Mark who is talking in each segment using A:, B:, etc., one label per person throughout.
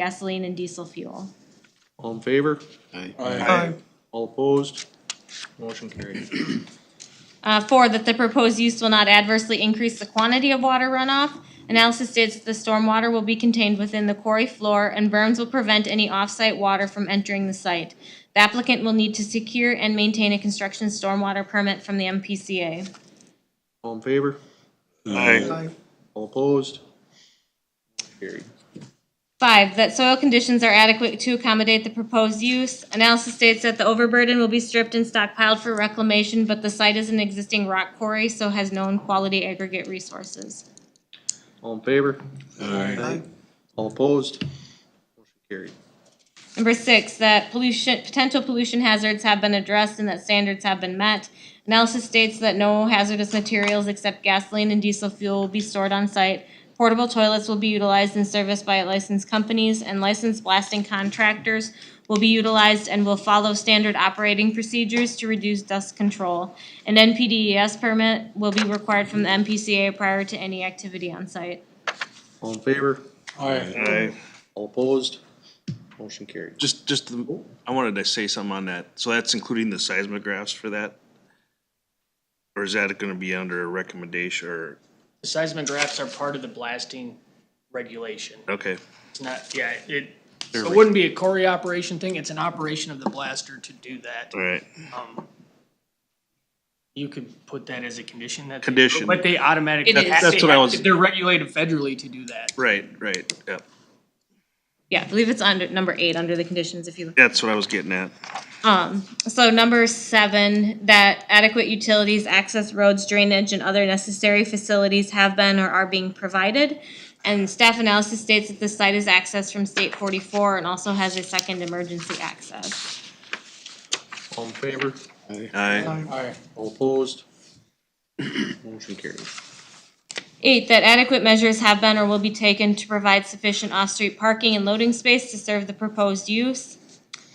A: gasoline and diesel fuel.
B: All in favor?
C: Aye.
B: All opposed? Motion carried.
A: Uh, four, that the proposed use will not adversely increase the quantity of water runoff. Analysis states that the stormwater will be contained within the quarry floor and berms will prevent any off-site water from entering the site. The applicant will need to secure and maintain a construction stormwater permit from the MPCA.
B: All in favor?
C: Aye.
B: All opposed? Carried.
A: Five, that soil conditions are adequate to accommodate the proposed use. Analysis states that the overburden will be stripped and stockpiled for reclamation, but the site is an existing rock quarry, so has known quality aggregate resources.
B: All in favor?
C: Aye.
B: All opposed? Motion carried.
A: Number six, that pollution, potential pollution hazards have been addressed and that standards have been met. Analysis states that no hazardous materials except gasoline and diesel fuel will be stored on site. Portable toilets will be utilized and serviced by licensed companies and licensed blasting contractors will be utilized and will follow standard operating procedures to reduce dust control. An NPDES E permit will be required from the MPCA prior to any activity on site.
B: All in favor?
D: Aye.
B: All opposed? Motion carried.
D: Just, just, the- I wanted to say something on that. So that's including the seismographs for that? Or is that gonna be under a recommendation or,
E: The seismographs are part of the blasting regulation.
D: okay,
E: It's not, yeah, it, so it wouldn't be a quarry operation thing, it's an operation of the blaster to do that.
D: all right.
E: Um, You could put that as a condition that. they-
D: Condition.
E: But they automatically.
A: It is.
E: have-
D: That's what I was-
E: They're regulated federally to do that.
D: Right, right, yep.
A: Yeah, I believe it's under, number eight, under the conditions if you look.
D: That's what I was getting at.
A: Um, So number seven, that adequate utilities, access roads, drainage, and other necessary facilities have been or are being provided. And staff analysis states that the site is accessed from state forty-four and also has a second emergency access.
B: All in favor?
D: Aye.
E: Alright.
B: All opposed? Motion carried.
A: Eight, that adequate measures have been or will be taken to provide sufficient off-street parking and loading space to serve the proposed use.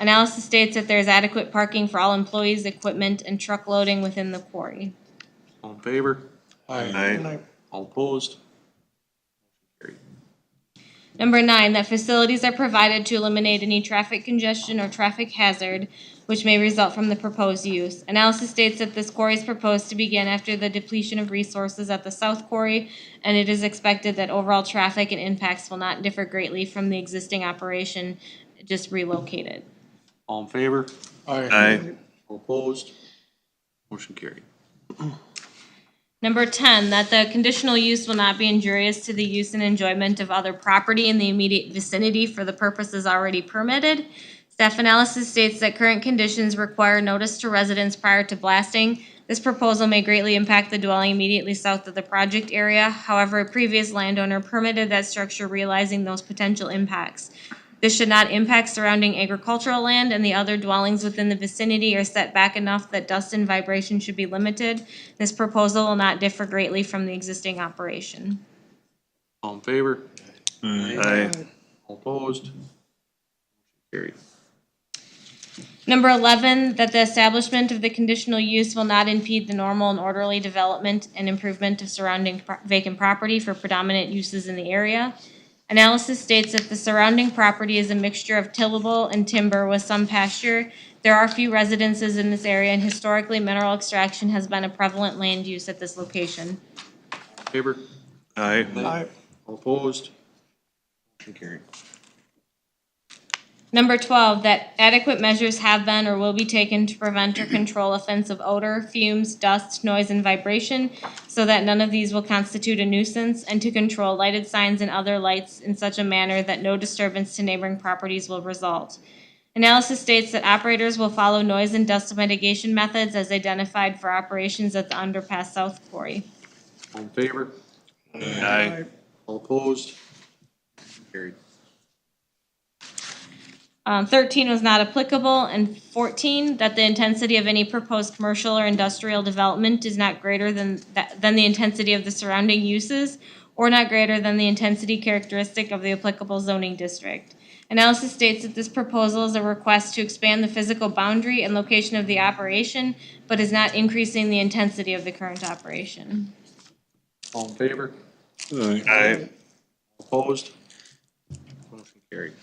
A: Analysis states that there is adequate parking for all employees, equipment, and truck loading within the quarry.
B: All in favor?
D: Aye.
B: All opposed? Motion
A: Number nine, that facilities are provided to eliminate any traffic congestion or traffic hazard which may result from the proposed use. Analysis states that this quarry is proposed to begin after the depletion of resources at the south quarry, and it is expected that overall traffic and impacts will not differ greatly from the existing operation, just relocated.
B: carried. All in favor?
D: Aye.
B: All opposed? Motion carried.
A: Number ten, that the conditional use will not be injurious to the use and enjoyment of other property in the immediate vicinity for the purposes already permitted. Staff analysis states that current conditions require notice to residents prior to blasting. This proposal may greatly impact the dwelling immediately south of the project area. However, a previous landowner permitted that structure realizing those potential impacts. This should not impact surrounding agricultural land and the other dwellings within the vicinity are set back enough that dust and vibration should be limited. This proposal will not differ greatly from the existing operation.
B: All in favor?
D: Aye.
B: All opposed? Motion Carried.
A: Number eleven, that the establishment of the conditional use will not impede the normal and orderly development and improvement of surrounding pro- vacant property for predominant uses in the area. Analysis states that the surrounding property is a mixture of tillable and timber with some pasture. There are few residences in this area and historically mineral extraction has been a prevalent land use at this location.
B: All in Favor?
D: Aye.
C: Aye.
B: All opposed? Motion carried.
A: Number twelve, that adequate measures have been or will be taken to prevent or control offensive odor, fumes, dust, noise, and vibration, so that none of these will constitute a nuisance, and to control lighted signs and other lights in such a manner that no disturbance to neighboring properties will result. Analysis states that operators will follow noise and dust mitigation methods as identified for operations at the underpass South Quarry.
B: All in favor?
D: Aye.
B: All opposed? Motion Carried.
A: Um, thirteen was not applicable, and fourteen, that the intensity of any proposed commercial or industrial development is not greater than, that- than the intensity of the surrounding uses, or not greater than the intensity characteristic of the applicable zoning district. Analysis states that this proposal is a request to expand the physical boundary and location of the operation, but is not increasing the intensity of the current operation.
B: All in favor?
D: Aye.
B: Opposed? Motion carried.
D: Carried.